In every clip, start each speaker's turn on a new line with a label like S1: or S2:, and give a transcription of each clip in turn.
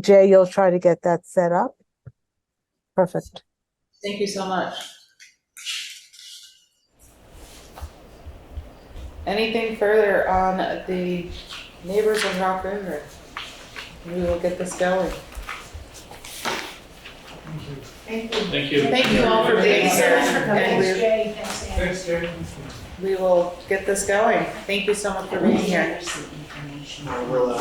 S1: Jay, you'll try to get that set up? Perfect.
S2: Thank you so much. Anything further on the neighbors of Rock River? We will get this going.
S3: Thank you.
S2: Thank you all for being
S4: Thank you so
S2: here.
S4: much for coming.
S2: And we-
S4: Jay, thanks, Ann.
S3: Thanks, Jerry.
S2: We will get this going. Thank you so much for being here.
S5: Our willow,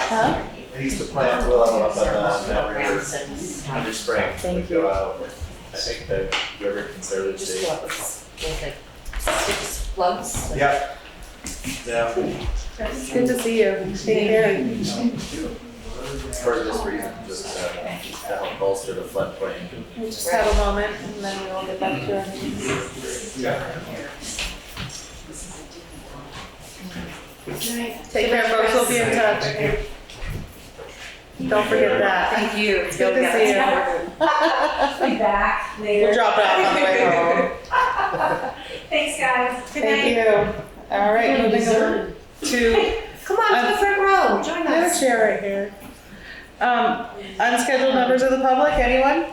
S2: Huh?
S5: at least the plant willow up on the, that river
S4: Just
S5: under spring. that
S2: Thank
S5: go
S2: you.
S5: out. I think the river conservancy.
S4: plugs, with like, just plugs. like-
S5: Yep. Yeah,
S2: It's good to see you. Take care.
S5: for this reason, just uh, to help bolster the floodplain.
S2: We Just have a moment and then we will get back to our meetings. Take care, folks. We'll be in touch. Don't forget that.
S4: Thank you. It's
S2: Good to see you.
S4: I'll be back later.
S2: We'll drop it off on the way home.
S4: Thanks, guys. Good
S2: Thank
S4: night.
S2: you. All right, moving over to,
S4: Come on, to the front row, join
S2: another
S4: us.
S2: chair right here. Um, unscheduled members of the public, anyone?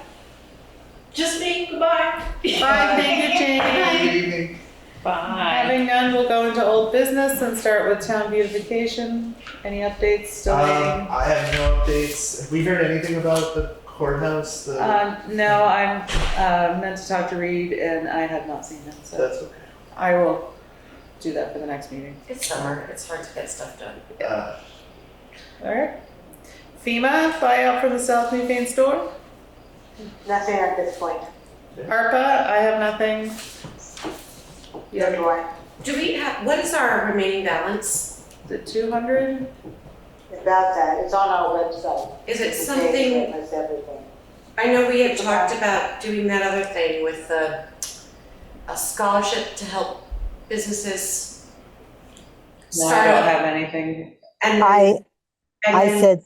S4: Just me, goodbye.
S2: Bye, thank you, Jane.
S4: Bye.
S2: Having none, we'll go into old business and start with town beautification. Any updates still
S5: Um,
S2: waiting?
S5: I have no updates. Have we heard anything about the courthouse? The,
S2: Um, no, I'm, uh, meant to talk to Reed and I have not seen him, so
S5: that's okay.
S2: I will do that for the next meeting.
S4: It's summer, it's hard to get stuff done.
S5: Uh,
S2: All right. FEMA, flyout for the South Newfane store.
S6: Nothing at this point.
S2: ARPA, I have nothing. You have
S6: do I.
S4: Do we have, what is our remaining balance?
S2: the two hundred?
S6: About that, it's on our website.
S4: Is it
S6: The date
S4: something,
S6: and it's everything.
S4: I know we had talked about doing that other thing with the, a scholarship to help businesses
S2: No, I don't
S4: start up
S2: have anything.
S4: and
S1: I,
S4: and
S1: I
S4: then-
S1: said,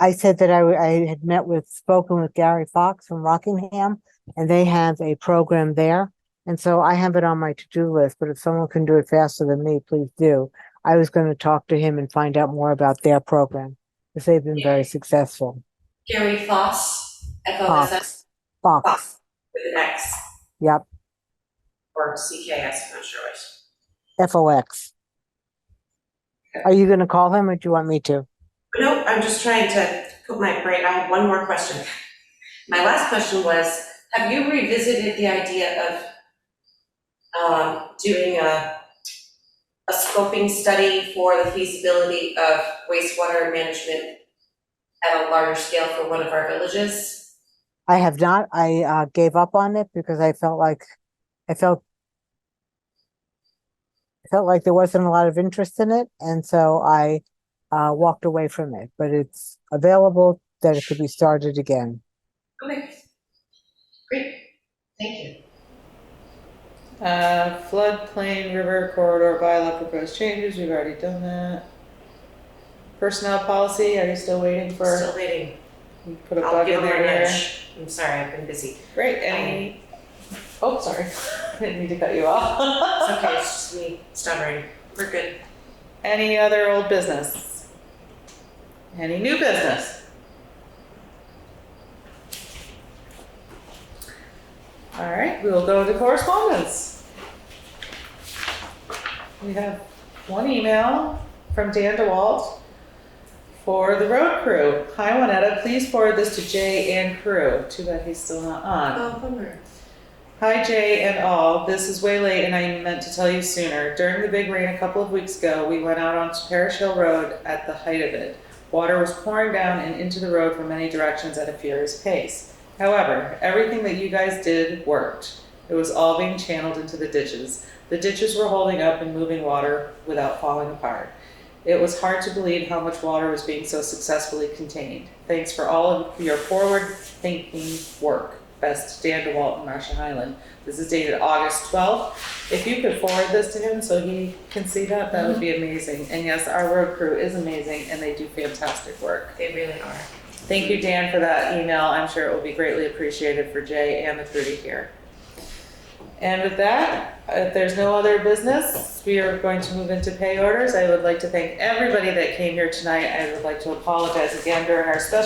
S1: I said that I, w- I had met with, spoken with Gary Fox from Rockingham, and they have a program there. And so I have it on my to-do list, but if someone can do it faster than me, please do. I was gonna talk to him and find out more about their program, because they've been very successful.
S4: Gary Foss, F O S S,
S1: Fox, Fox,
S4: Oh, Fox, with an X.
S1: Yep.
S4: Or CKS, I'm not sure which.
S1: F-O-X. Are you gonna call him, or do you want me to?
S4: Nope, I'm just trying to put my brain, I have one more question. My last question was, have you revisited the idea of um, doing a, a scoping study for the feasibility of wastewater management at a larger scale for one of our villages?
S1: I have not. I uh, gave up on it because I felt like, I felt I felt like there wasn't a lot of interest in it, and so I uh, walked away from it. But it's available that it could be started again.
S4: Okay. Great, thank you.
S2: Uh, floodplain, river corridor bylaw proposed changes, we've already done that. Personnel policy, are you still waiting for,
S4: Still waiting.
S2: you put a
S4: I'll
S2: bug
S4: give
S2: in
S4: them
S2: there?
S4: an inch. I'm sorry, I've been busy.
S2: Great, any, oh, sorry, didn't mean to cut you off.
S4: It's okay, it's just me stuttering. We're good.
S2: Any other old business? Any new business? All right, we will go to correspondence. We have one email from Dan DeWalt for the road crew. Hi, Juanetta, please forward this to Jay and crew. Too bad he's still not on.
S4: Oh, bummer.
S7: Hi Jay and all, this is way late and I meant to tell you sooner. During the big rain a couple of weeks ago, we went out onto Parish Hill Road at the height of it. Water was pouring down and into the road from many directions at a furious pace. However, everything that you guys did worked. It was all being channeled into the ditches. The ditches were holding up and moving water without falling apart. It was hard to believe how much water was being so successfully contained. Thanks for all of your forward thinking work. Best Dan DeWalt in Marshall Highland. This is dated August 12th. If you could forward this to him so he can see that, that would be amazing. And yes, our road crew is amazing and they do fantastic work.
S4: They really are.
S7: Thank you, Dan, for that email. I'm sure it will be greatly appreciated for Jay and the crew to hear.
S2: And with that, if there's no other business, we are going to move into pay orders. I would like to thank everybody that came here tonight. I would like to apologize again during our special